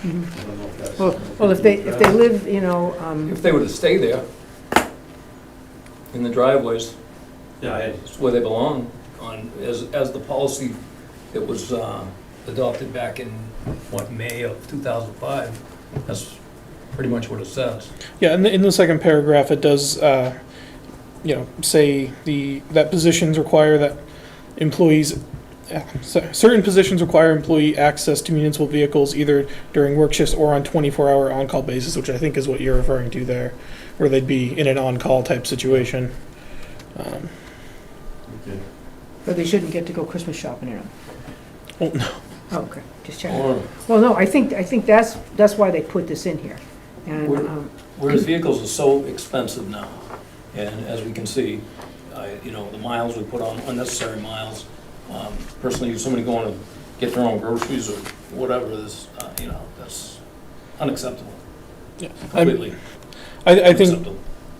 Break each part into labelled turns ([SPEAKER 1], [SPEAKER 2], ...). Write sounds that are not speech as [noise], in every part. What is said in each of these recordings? [SPEAKER 1] I don't know if that's
[SPEAKER 2] Well,
[SPEAKER 1] something
[SPEAKER 2] well, if they,
[SPEAKER 1] we can
[SPEAKER 2] if they
[SPEAKER 1] address.
[SPEAKER 2] live, you know, um,
[SPEAKER 3] If they were to stay there, in the driveways,
[SPEAKER 1] Yeah, I-
[SPEAKER 3] it's where they belong, on, as, as the policy that was uh, adopted back in, what, May of 2005, that's pretty much what it says.
[SPEAKER 4] Yeah, in the, in the second paragraph, it does, uh, you know, say the, that positions require that employees, uh, cer- certain positions require employee access to municipal vehicles either during work shifts or on twenty-four hour on-call basis, which I think is what you're referring to there, where they'd be in an on-call type situation. Um,
[SPEAKER 1] okay.
[SPEAKER 2] but they shouldn't get to go Christmas shopping in them.
[SPEAKER 4] Oh, no.
[SPEAKER 2] Oh, Okay, just checking.
[SPEAKER 3] Or,
[SPEAKER 2] Well, no, I think, I think that's, that's why they put this in here. And,
[SPEAKER 3] Where-
[SPEAKER 2] um,
[SPEAKER 3] whereas vehicles are so expensive now, and as we can see, I- you know, the miles we put on, unnecessary miles, um, personally, if somebody going to get their own groceries or whatever, this, uh, you know, that's unacceptable,
[SPEAKER 4] yeah. I,
[SPEAKER 3] completely
[SPEAKER 4] I I think
[SPEAKER 3] unacceptable.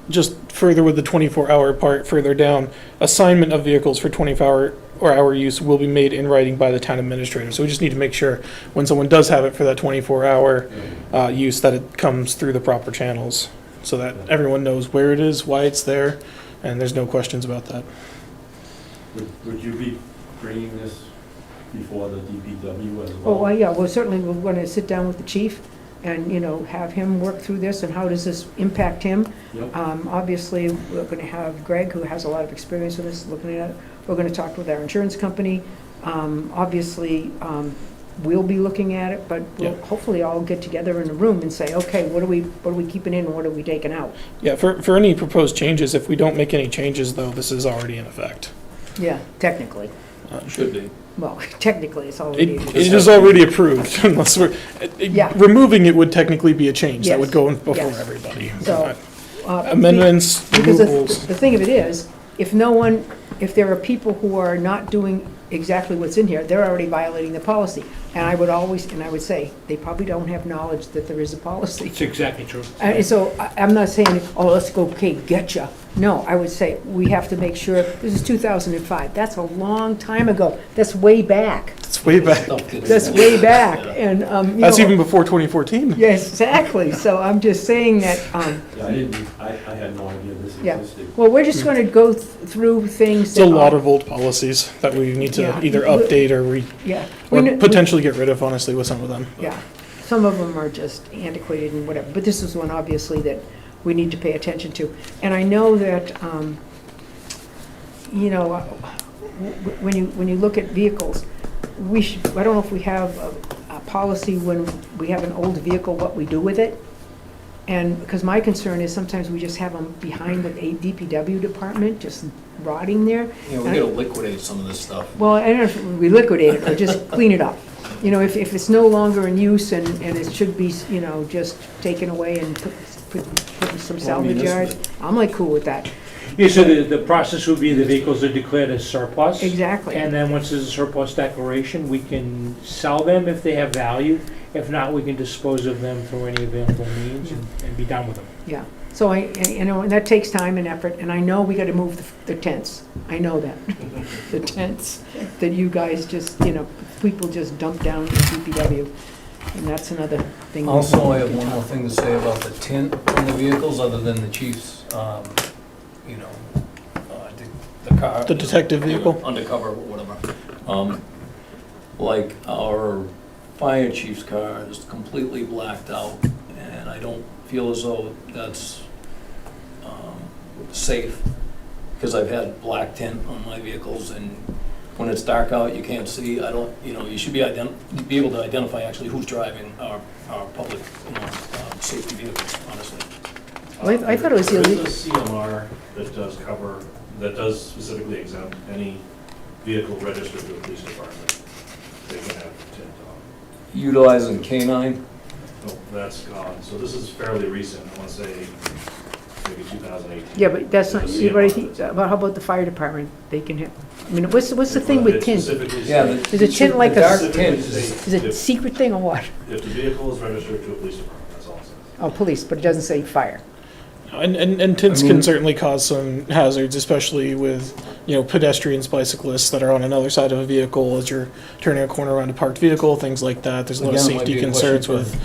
[SPEAKER 4] just further with the 24-hour part further down, assignment of vehicles for 24-hour or hour use will be made in writing by the town administrator. So we just need to make sure when someone does have it for that 24-hour uh, use, that it comes through the proper channels, so that everyone knows where it is, why it's there, and there's no questions about that.
[SPEAKER 1] Would, would you be bringing this before the DPW as
[SPEAKER 2] oh,
[SPEAKER 1] well?
[SPEAKER 2] well, yeah, well, certainly we're going to sit down with the chief and, you know, have him work through this and how does this impact him?
[SPEAKER 1] Yep.
[SPEAKER 2] Um, Obviously, we're going to have Greg, who has a lot of experience with this, looking at it. We're going to talk with our insurance company. Um, Obviously, um, we'll be looking at it, but we'll
[SPEAKER 4] Yeah.
[SPEAKER 2] hopefully all get together in a room and say, okay, what are we, what are we keeping in and what are we taking out?
[SPEAKER 4] Yeah, for, for any proposed changes, if we don't make any changes, though, this is already in effect.
[SPEAKER 2] Yeah, technically.
[SPEAKER 3] Should be.
[SPEAKER 2] Well, [laughs] technically, it's all.
[SPEAKER 4] It,
[SPEAKER 2] we need.
[SPEAKER 4] it is already approved, [laughs] unless we're, it- it-
[SPEAKER 2] Yeah.
[SPEAKER 4] removing it would technically be a change, that
[SPEAKER 2] Yes,
[SPEAKER 4] would go in before
[SPEAKER 2] yes.
[SPEAKER 4] everybody.
[SPEAKER 2] So, uh,
[SPEAKER 4] Amendments,
[SPEAKER 2] Because the,
[SPEAKER 4] removals.
[SPEAKER 2] the thing of it is, if no one, if there are people who are not doing exactly what's in here, they're already violating the policy. And I would always, and I would say, they probably don't have knowledge that there is a policy. [laughs]
[SPEAKER 5] It's exactly true.
[SPEAKER 2] And so I, I'm not saying, oh, let's go, okay, getcha. No, I would say, we have to make sure, this is two thousand and five, that's a long time ago, that's way back,
[SPEAKER 4] It's way back.
[SPEAKER 3] Stuff gets-
[SPEAKER 2] that's way back,
[SPEAKER 3] Yeah.
[SPEAKER 2] and, um, you know.
[SPEAKER 4] That's even before 2014.
[SPEAKER 2] Yes, exactly, so I'm just saying that, um,
[SPEAKER 1] Yeah, I didn't, I, I had no idea this
[SPEAKER 2] Yeah.
[SPEAKER 1] existed.
[SPEAKER 2] Well, we're just going to go th- through things.
[SPEAKER 4] It's a
[SPEAKER 2] that
[SPEAKER 4] lot
[SPEAKER 2] are-
[SPEAKER 4] of old policies that we need to
[SPEAKER 2] Yeah.
[SPEAKER 4] either update or re,
[SPEAKER 2] Yeah. We
[SPEAKER 4] or
[SPEAKER 2] kn- we-
[SPEAKER 4] potentially get rid of, honestly, with some of them.
[SPEAKER 2] Yeah. Some of them are just antiquated and whatever, but this is one obviously that we need to pay attention to. And I know that, um, you know, uh, w- w- when you, when you look at vehicles, we should, I don't know if we have a, a policy when we have an old vehicle, what we do with it. And, because my concern is sometimes we just have them behind the DPW department, just rotting there.
[SPEAKER 3] You know, we gotta liquidate some of this stuff.
[SPEAKER 2] Well, I don't know if we liquidate it or just clean it up. You know, if, if it's no longer in use and, and it should be, you know, just taken away and put, put, put in some
[SPEAKER 3] Well, I mean,
[SPEAKER 2] salvage yards, I'm like cool with that.
[SPEAKER 5] Yeah, so the, the process would be the vehicles are declared as surplus.
[SPEAKER 2] Exactly.
[SPEAKER 5] And then once there's a surplus declaration, we can sell them if they have value. If not, we can dispose of them through any available means and and be done with them.
[SPEAKER 2] Yeah. So I, and, you know, and that takes time and effort, and I know we gotta move the the tents. I know
[SPEAKER 3] [laughs]
[SPEAKER 2] that. The tents that you guys just, you know, people just dump down in DPW. And that's another thing. we-
[SPEAKER 3] Also, I have one more thing to say about the tint on the vehicles, other than the chief's, um, you know, uh, the- the car.
[SPEAKER 4] The detective vehicle?
[SPEAKER 3] Undercover, or whatever. Um, Like our fire chief's car is completely blacked out, and I don't feel as though that's um, safe, because I've had black tint on my vehicles, and when it's dark out, you can't see, I don't, you know, you should be ident, be able to identify actually who's driving our, our public, you know, um, safety vehicles, honestly.
[SPEAKER 2] Well, I I thought it was
[SPEAKER 6] There
[SPEAKER 2] illegal.
[SPEAKER 6] is a CMR that does cover, that does specifically exempt any vehicle registered to the police department. They can have tint on.
[SPEAKER 3] Utilizing canine,
[SPEAKER 6] No, that's gone. So this is fairly recent, I want to say maybe 2018.
[SPEAKER 2] Yeah, but that's not,
[SPEAKER 6] There's a
[SPEAKER 2] you already,
[SPEAKER 6] CMR
[SPEAKER 2] think-
[SPEAKER 6] that's-
[SPEAKER 2] about, how about the fire department? They can have, I mean, what's, what's the thing
[SPEAKER 6] They
[SPEAKER 2] with tint?
[SPEAKER 6] specifically
[SPEAKER 3] yeah.
[SPEAKER 6] say-
[SPEAKER 3] the-
[SPEAKER 2] Is it tint like
[SPEAKER 3] the
[SPEAKER 2] a-
[SPEAKER 3] dark
[SPEAKER 6] specifically
[SPEAKER 3] tint is-
[SPEAKER 6] say
[SPEAKER 2] Is it a
[SPEAKER 6] If
[SPEAKER 2] secret thing or what?
[SPEAKER 6] if the vehicle is registered to a police department, that's all it says.
[SPEAKER 2] Oh, police, but it doesn't say fire.
[SPEAKER 4] And, and, and tints
[SPEAKER 3] I mean-
[SPEAKER 4] can certainly cause some hazards, especially with, you know, pedestrians, bicyclists that are on another side of a vehicle as you're turning a corner around a parked vehicle, things like that. There's a lot of
[SPEAKER 3] Again, it might
[SPEAKER 4] safety
[SPEAKER 3] be a question
[SPEAKER 4] concerns
[SPEAKER 3] for-
[SPEAKER 4] with